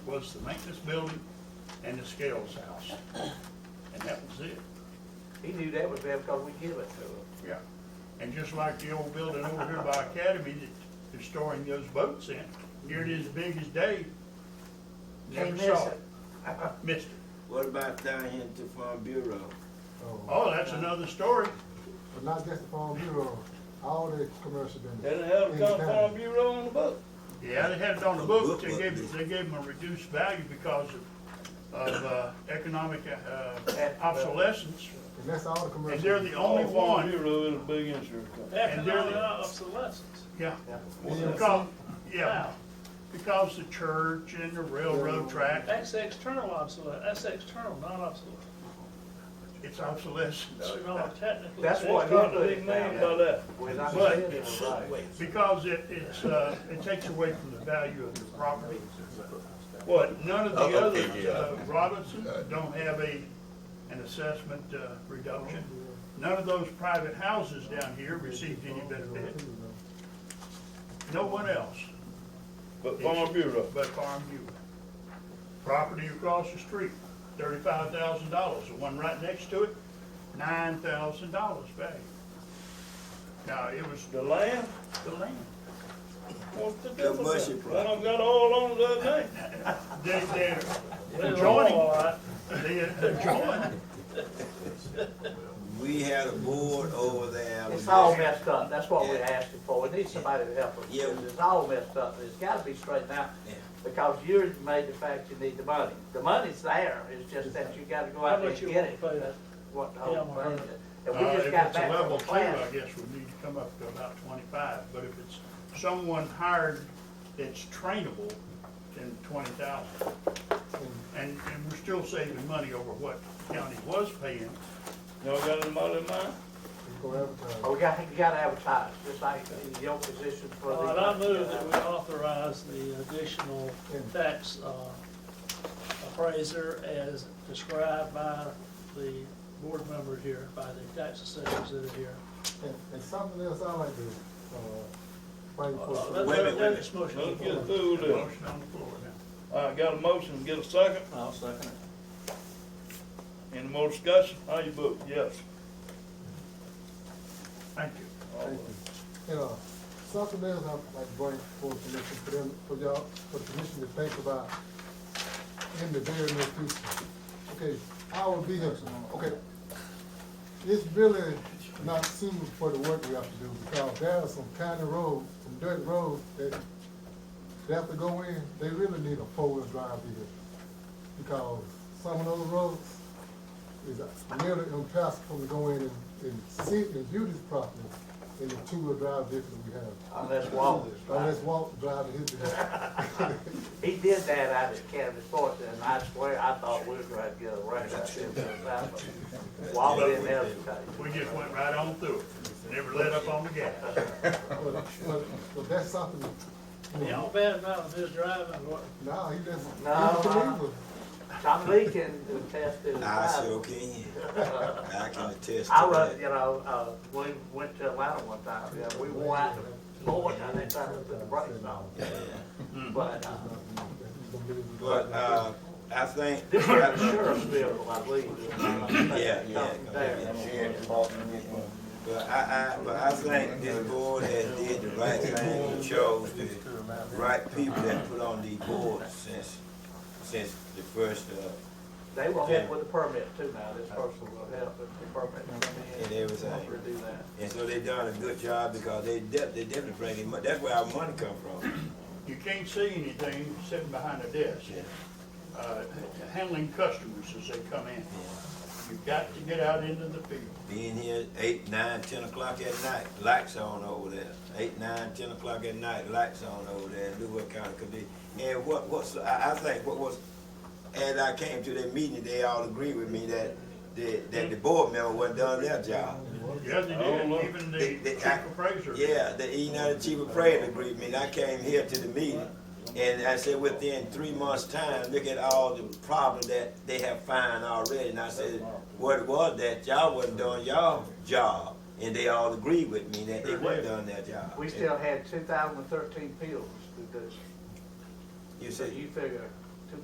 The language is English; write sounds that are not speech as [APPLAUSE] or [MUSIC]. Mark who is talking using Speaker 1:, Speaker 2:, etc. Speaker 1: was the maintenance building and the scales house. And that was it,
Speaker 2: He knew that was there because we give it to him.
Speaker 1: yeah. And just like the old building over here by Academy that they're storing those boats in, here it is big as day.
Speaker 2: Can't
Speaker 1: Never
Speaker 2: miss
Speaker 1: saw
Speaker 2: it. [LAUGHS]
Speaker 1: it, missed it.
Speaker 3: What about down here at the Farm Bureau?
Speaker 1: Oh, that's another story.
Speaker 4: But not just the Farm Bureau, all the commercial business.
Speaker 3: That'll help
Speaker 4: in
Speaker 3: come
Speaker 4: town.
Speaker 3: Farm Bureau on the book.
Speaker 1: Yeah, they had it on the book, they gave, they gave them a reduced value because of, of, uh, economic, uh, obsolescence.
Speaker 4: And that's all the commercial.
Speaker 1: And they're the only
Speaker 3: Oh, Farm
Speaker 1: one,
Speaker 3: Bureau is a big insurance company.
Speaker 5: Economic obsolescence.
Speaker 1: yeah.
Speaker 2: Yeah.
Speaker 1: Because, yeah, because the church and the railroad track,
Speaker 5: That's external obsolete, that's external, not obsolete.
Speaker 1: it's obsolescence.
Speaker 5: It's not technically.
Speaker 2: That's what he
Speaker 5: That's not a
Speaker 2: put
Speaker 5: big
Speaker 2: it
Speaker 5: name
Speaker 2: down.
Speaker 5: by that.
Speaker 2: We're not
Speaker 1: But-
Speaker 2: saying it was right.
Speaker 1: Because it, it's, uh, it takes away from the value of the property. But none of the others, uh, Robinson don't have a, an assessment, uh, reduction. None of those private houses down here received any benefit. No one else
Speaker 3: But Farm Bureau.
Speaker 1: but Farm Bureau. Property across the street, thirty-five thousand dollars. The one right next to it, nine thousand dollars value. Now, it was
Speaker 3: The land,
Speaker 1: the land.
Speaker 3: what's the
Speaker 6: The
Speaker 3: difference?
Speaker 6: Bushy
Speaker 3: They
Speaker 6: property.
Speaker 3: done got all on the other day.
Speaker 1: They, they're,
Speaker 5: They're
Speaker 1: Joining.
Speaker 5: all right.
Speaker 1: they- Uh, they're joined.
Speaker 6: We had a board over there.
Speaker 2: It's all messed up, that's what we're asking for, we need somebody to help us,
Speaker 6: Yeah.
Speaker 2: because it's all messed up, it's gotta be straightened out.
Speaker 6: Yeah.
Speaker 2: Because you made the fact you need the money, the money's there, it's just that you gotta go
Speaker 5: How
Speaker 2: out there
Speaker 5: much
Speaker 2: and
Speaker 5: you
Speaker 2: get
Speaker 5: want
Speaker 2: it,
Speaker 5: to pay that?
Speaker 2: what the
Speaker 5: Yeah,
Speaker 2: whole
Speaker 5: I'm
Speaker 2: thing
Speaker 5: hundred.
Speaker 2: is.
Speaker 1: Uh,
Speaker 2: And we just
Speaker 1: if
Speaker 2: got
Speaker 1: it's a
Speaker 2: back from
Speaker 1: level
Speaker 2: the
Speaker 1: two, I
Speaker 2: class,
Speaker 1: guess we need to come up to about twenty-five, but if it's someone hired that's trainable, then twenty thousand. And, and we're still saving money over what the county was paying.
Speaker 3: Y'all got anybody in mind?
Speaker 4: You go advertise.
Speaker 2: Oh, we got, you gotta advertise, just like the old position for the.
Speaker 5: All right, I move that we authorize the additional tax uh, appraiser as described by the board member here, by the tax assessors that are here.
Speaker 4: And, and something else I like to, uh, bring
Speaker 5: Uh,
Speaker 4: for.
Speaker 5: Let,
Speaker 6: Wait a minute,
Speaker 5: let, let
Speaker 6: wait a
Speaker 5: this motion.
Speaker 3: Let's get through this.
Speaker 1: Motion on the floor now.
Speaker 3: All right, got a motion, get a second.
Speaker 7: I'll second it.
Speaker 3: Any more discussion? How you vote? Yes.
Speaker 1: Thank you.
Speaker 4: Thank you. And, uh, something else I'd like to bring for commission, for them, for y'all, for the commission to think about in the very near future. Okay, I will be here tomorrow, okay? It's really not suitable for the work we have to do, because there are some county roads, some dirt roads that they have to go in, they really need a four-wheel drive vehicle. Because some of those roads, is nearly impossible to go in and, and see and view this property in the two-wheel drive vehicle we have.
Speaker 2: Unless Walt is
Speaker 4: Unless
Speaker 2: right.
Speaker 4: Walt driving his vehicle.
Speaker 2: He did that out of Academy Sports, and I swear, I thought we were gonna get a raise out there. for that, but Walt didn't advertise.
Speaker 1: We just went right on through it, never let up on the gas.
Speaker 4: But, but, but that's something, you
Speaker 5: Y'all
Speaker 4: know,
Speaker 5: bad about his driving, what,
Speaker 4: now he doesn't, he's
Speaker 2: No, I-
Speaker 4: a believer.
Speaker 2: Tom Lee can attest to the
Speaker 6: I
Speaker 2: fact.
Speaker 6: sure can. I can attest to
Speaker 2: I was, you
Speaker 6: that.
Speaker 2: know, uh, we went to Atlanta one time, yeah, we went out to Florida, and they tried to put the brakes on. But, uh,
Speaker 6: But, uh, I think.
Speaker 2: this was the sheriff's vehicle, I believe. uh,
Speaker 6: Yeah, yeah.
Speaker 2: There.
Speaker 6: But I, I, but I think this board has did the right thing, and chose the right people that put on these boards since, since the first, uh,
Speaker 2: They will help with the permit too now, this person will help with the permit.
Speaker 6: and everything.
Speaker 2: We'll do that.
Speaker 6: And so they done a good job because they de- they definitely bringing money, that's where our money come from.
Speaker 1: You can't see anything sitting behind a desk, uh, handling customers as they come in. You've got to get out into the field.
Speaker 6: Being here eight, nine, ten o'clock at night, lights on over there. Eight, nine, ten o'clock at night, lights on over there, do what kind of condition. And what, what's, I, I think what was, as I came to that meeting, they all agreed with me that, the- that the board member wasn't done their job.
Speaker 1: Yeah, they did, even oh, the
Speaker 6: They- they-
Speaker 1: chief appraiser.
Speaker 6: Yeah, the E United Chief of Prayer Agreement, I came here to the meeting, and I said, within three months' time, look at all the problems that they have found already, and I said, what it was that y'all wasn't doing y'all job, and they all agreed with me that they weren't doing their job.
Speaker 2: We still had two thousand and thirteen appeals to this,
Speaker 6: You
Speaker 2: so
Speaker 6: said,
Speaker 2: you figure